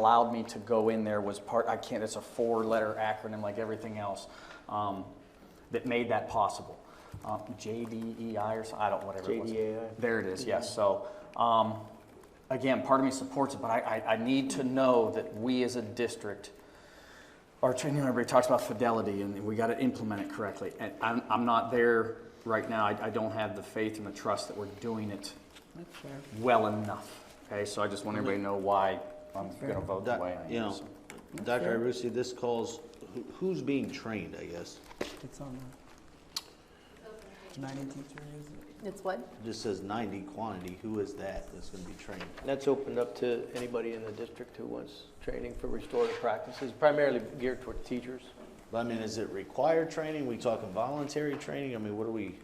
allowed me to go in there was part, I can't, it's a four-letter acronym like everything else, um, that made that possible. Um, JDEI or so, I don't, whatever it was. JDAI. There it is, yes, so, um, again, part of me supports it, but I, I, I need to know that we as a district, our training library talks about fidelity and we gotta implement it correctly, and I'm, I'm not there right now, I, I don't have the faith and the trust that we're doing it well enough, okay? So I just want everybody to know why I'm gonna vote the Doc- way I am. You know, so. Dr. Irucci, this calls, who- who's being trained, I guess? It's on the ninety teacher, is it? It's what? It Just says ninety quantity, who is that that's gonna be trained? That's opened up to anybody in the district who wants training for restorative practices, primarily geared toward teachers. But I mean, is it required training? We talking voluntary training? I mean, what are we,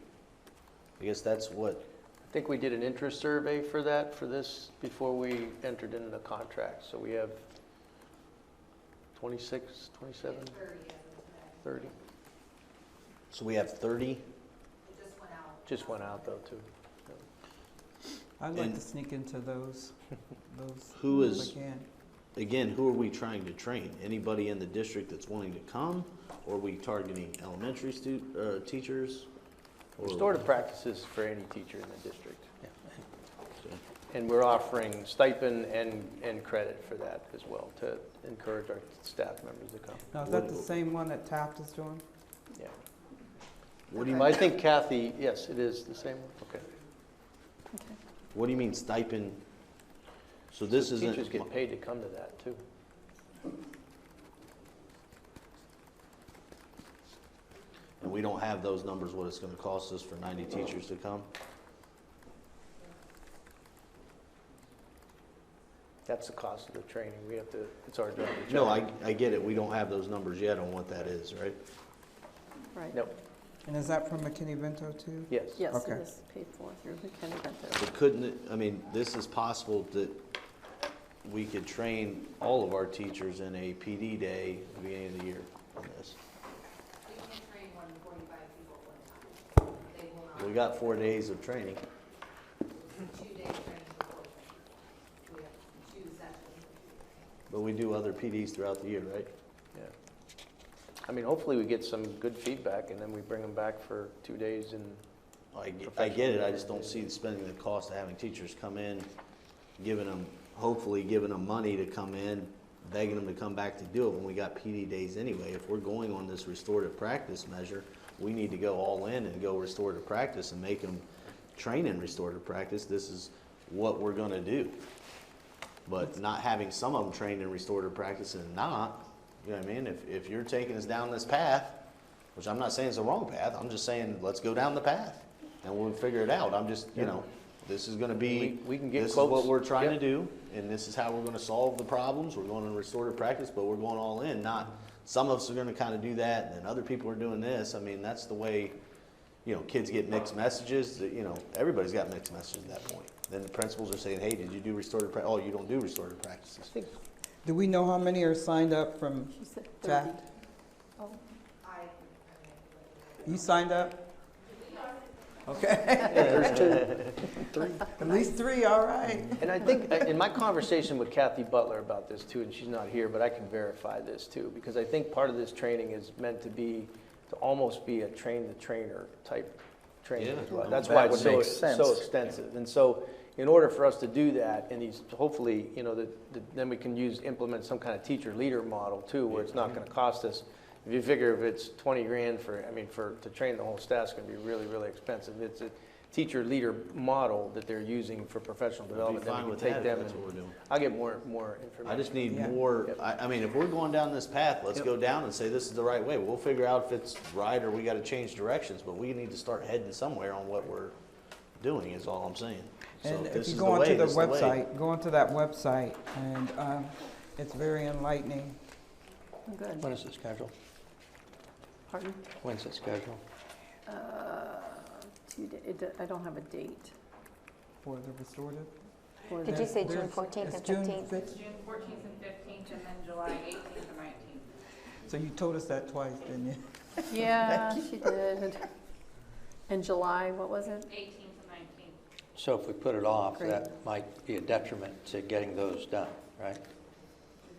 I guess that's what, I think we did an interest survey for that, for this, before we entered into the contract. So we have 26, 27? 30. so we have thirty? Just went out though, too. I'd like to And- sneak into those, those. Who if I is- can. Again, who are we trying to train? Anybody in the district that's wanting to come? Or are we targeting elementary stu, uh, teachers? Or- Restorative practices for any teacher in the district. So- And we're offering stipend and, and credit for that as well, to encourage our staff members to come. Now, is that the same one that Taft is doing? Yeah. What do you, But I think Kathy, yes, it is the same one, okay. what do you mean stipend? So this isn't. Teachers get paid to come to that, too. And we don't have those numbers, what it's gonna cost us for ninety teachers to come? That's the cost of the training, we have to, it's our job to. No, check. I, I get it, we don't have those numbers yet on what that is, right? Right. No, And is that from McKinney-Vento too? yes. Yes, it Okay. is paid for through McKenna Vento. But couldn't, it- I mean, this is possible that we could train all of our teachers in a PD day at the beginning of the year on this. We can train more than forty-five people at one time. They will not, We got four days of training. two-day training before training. We have two sessions. But we do other PDs throughout the year, right? Yeah. I mean, hopefully we get some good feedback, and then we bring them back for two days and, I, ge- I get it, I just don't see spending the cost of having teachers come in, giving them, hopefully giving them money to come in, begging them to come back to do it when we got PD days anyway. If we're going on this restorative practice measure, we need to go all in and go restorative practice and make them train in restorative practice. This is what we're gonna do. But not having some of them trained in restorative practice and not, you know what I mean? If, if you're taking us down this path, which I'm not saying is the wrong path, I'm just saying, let's go down the path and we'll figure it out. I'm just, you know, this is gonna be, We- we can get this is what quotes. we're trying to Yep. do and this is how we're gonna solve the problems. We're going in restorative practice, but we're going all in, not, some of us are gonna kinda do that and then other people are doing this. I mean, that's the way, you know, kids get mixed messages, that, you know, everybody's got mixed messages at that point. Then the principals are saying, hey, did you do restorative prac, oh, you don't do restorative practices. I think, Do we know how many are signed up from She said 30. Taft? Oh, You signed up? Okay. At least three, all right. Mm-hmm. and I think, in my conversation with Kathy Butler about this too, and she's not here, but I can verify this too, because I think part of this training is meant to be, to almost be a train-the-trainer type training Yeah. as well. That's why That it's so, would it's make so sense. extensive. And so, in order for us to do that, and these, hopefully, you know, the, the, then we can use, implement some kind of teacher leader model too, where it's not gonna cost us. If you figure if it's twenty grand for, I mean, for, to train the whole staff's gonna be really, really expensive. It's a teacher leader model that they're using for professional I'd be development. Then we fine can with take that if them that's and- what we're doing. I'll get more, more information. I just need Yeah. more, Yep. I, I mean, if we're going down this path, let's go down and say this is the right way. We'll figure out if it's right or we gotta change directions, but we need to start heading somewhere on what we're doing is all I'm saying. So And if this you is go onto way, the this is way. website, go onto that website, and um, it's very enlightening. I'm good. When is the schedule? Pardon? When's the schedule? Uh, two da- it do- I don't have a date For the restorative? for Did you that- say June there's- 14th it's and June 15th? fif- June fourteenth and fifteenth, and then July eighteenth and nineteenth. So you told us that twice, didn't you? Yeah, she did. In July, what was it? Eighteenth and nineteenth. So if we put it off, Great. that might be a detriment to getting those done, right?